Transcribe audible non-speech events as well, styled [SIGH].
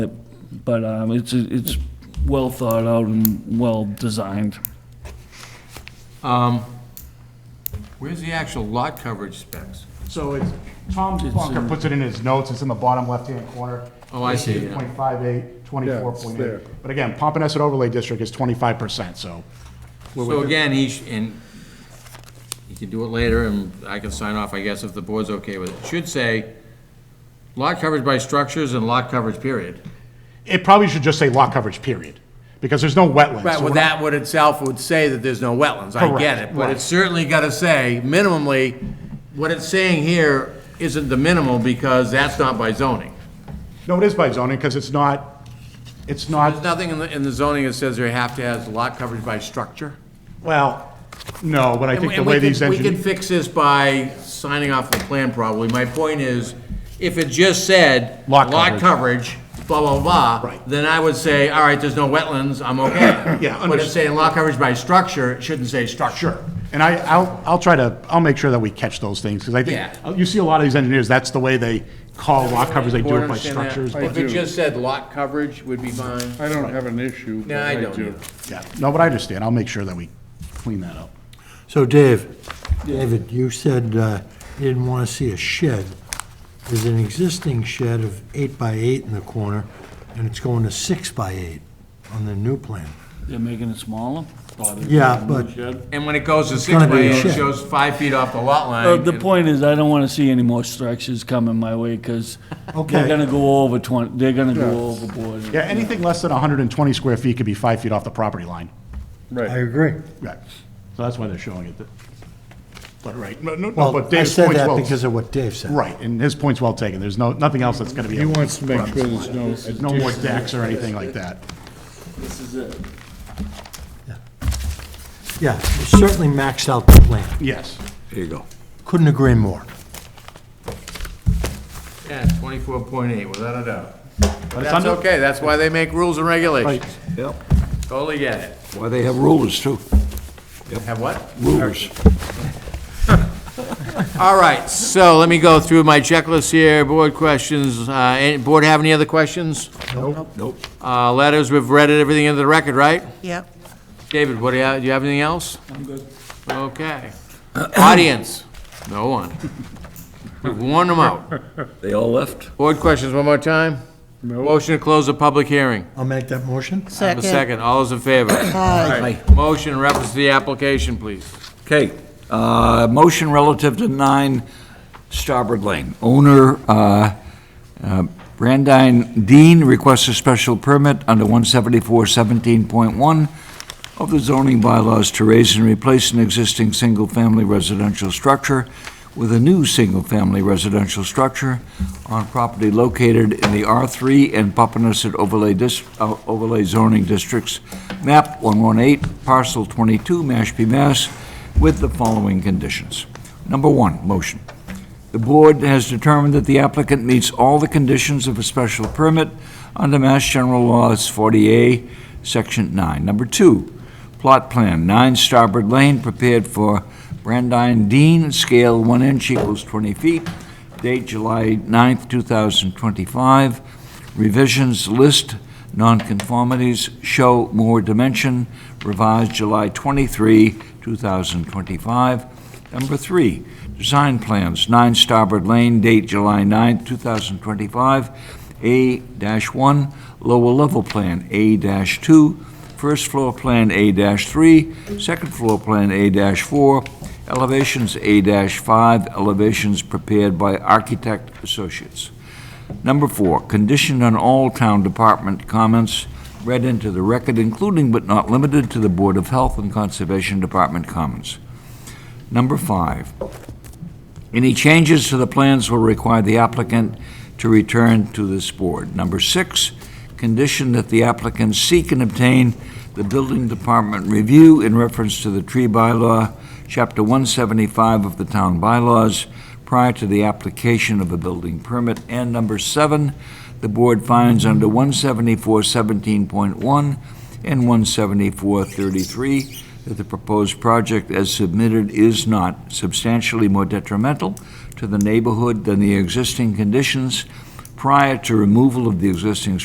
but um, it's, it's well thought out and well designed. Um, Where's the actual lot coverage specs? So it's, Tom Plonker puts it in his notes, it's in the bottom left-hand corner. Oh, I see, yeah. 8.58, there. 24.8. But again, Pompanesset Overlay District is 25%, so. we're So within- again, he, sh- and he can do it later, and I can sign off, I guess, if the board's okay with it. Should say, lot coverage by structures and lot coverage, period. It probably should just say lot coverage, period, because there's no wetlands. Right, so well, we're not- that would itself would say that there's no wetlands, I get Correct, it, but right. it's certainly gotta say, minimally, what it's saying here isn't the minimal, because that's not by zoning. No, it is by zoning, because it's not, it's There's not, nothing in the, in the zoning that says you have to have lot coverage by structure. well, no, but I And think we- the and we way could- these We can engineers. fix this by signing off the plan probably. My point is, if it just said. Lot coverage. coverage, blah, blah, blah. Right. Then I would say, all right, there's no wetlands, I'm okay. Yeah, But understood. it's saying lot coverage by structure, it shouldn't say structure. Sure, and I, I'll, I'll try to, I'll make sure that we catch those things, because I Yeah. think, you see a lot of these engineers, that's the way they call lot coverage, they do Board it by understand that? structures. I but- If it do. just said lot coverage would be fine. I don't have an issue. No, I but don't do. either. Yeah, no, but I understand, I'll make sure that we clean that up. So Dave, David, you said uh, you didn't want to see a shed. There's an existing shed of eight by eight in the corner, and it's going to six by eight on the new plan. They're making it smaller? Thought it was Yeah, a but- new shed. And when it goes to six gonna by be a eight, it shed. shows five feet off the lot Uh, line. The and- point is, I don't want to see any more structures coming my way, because they're Okay. gonna go over twenty, they're gonna go overboard. Yeah, anything less than 120 square feet could be five feet off the property line. I Right. agree. Right. So that's why they're showing it. But right, no, no, no, but Well, I Dave's said point's that well, because of what Dave said. right, and his point's well taken. There's no, nothing else that's going to be. He wants to make sure there's no. There's no more additional- decks or anything like that. This is it. Yeah, it certainly maxed out the plan. Yes. There you go. Couldn't agree more. Yeah, twenty-four point eight, without a doubt. But it's That's under, okay, that's why they make rules and regulations. Yep, Totally get it. why they have rulers too, Have what? rulers. [LAUGHS] All right, so let me go through my checklist here, board questions, uh, any, board have any other questions? Nope, Uh, letters, we've read it, everything into the record, right? Yep. David, what do you, do you have anything else? I'm good. Okay. Audience, no one. We've worn them out. they all left. Board questions one more time? Motion to close the public hearing. I'll make that motion. I have a second, all those in favor? Aye. Motion in reference to the application, please. Okay, uh, motion relative to nine Starboard Lane. Owner, uh, uh, Brandine Dean requests a special permit under one seventy-four seventeen point one of the zoning bylaws to raise and replace an existing single-family residential structure with a new single-family residential structure on property located in the R three and Papaneset overlay dis, uh, overlay zoning districts, map one one eight, parcel twenty-two, Mashpee, Mass, with the following conditions. Number one, motion. The board has determined that the applicant meets all the conditions of a special permit under Mass General Laws 40A, Section 9. Number two, plot plan, 9 Starboard Lane, prepared for Brandine Dean, scale 1 inch equals 20 feet, date July 9th, 2025. Revisions list nonconformities, show more dimension, revised July 23, 2025. Number three, design plans, 9 Starboard Lane, date July 9, 2025, A-1, lower level plan, A-2, first floor plan, A-3, second floor plan, A-4, elevations, A-5, elevations prepared by Architect Associates. Number four, conditioned on all town department comments read into the record, including but not limited to the Board of Health and Conservation Department comments. Number five, any changes to the plans will require the applicant to return to this board. Number six, condition that the applicant seek and obtain the building department review in reference to the tree bylaw, Chapter 175 of the town bylaws, prior to the application of a building permit. And number seven, the board finds under 174.17.1 and 174.33 that the proposed project as submitted is not substantially more detrimental to the neighborhood than the existing conditions prior to removal of the existing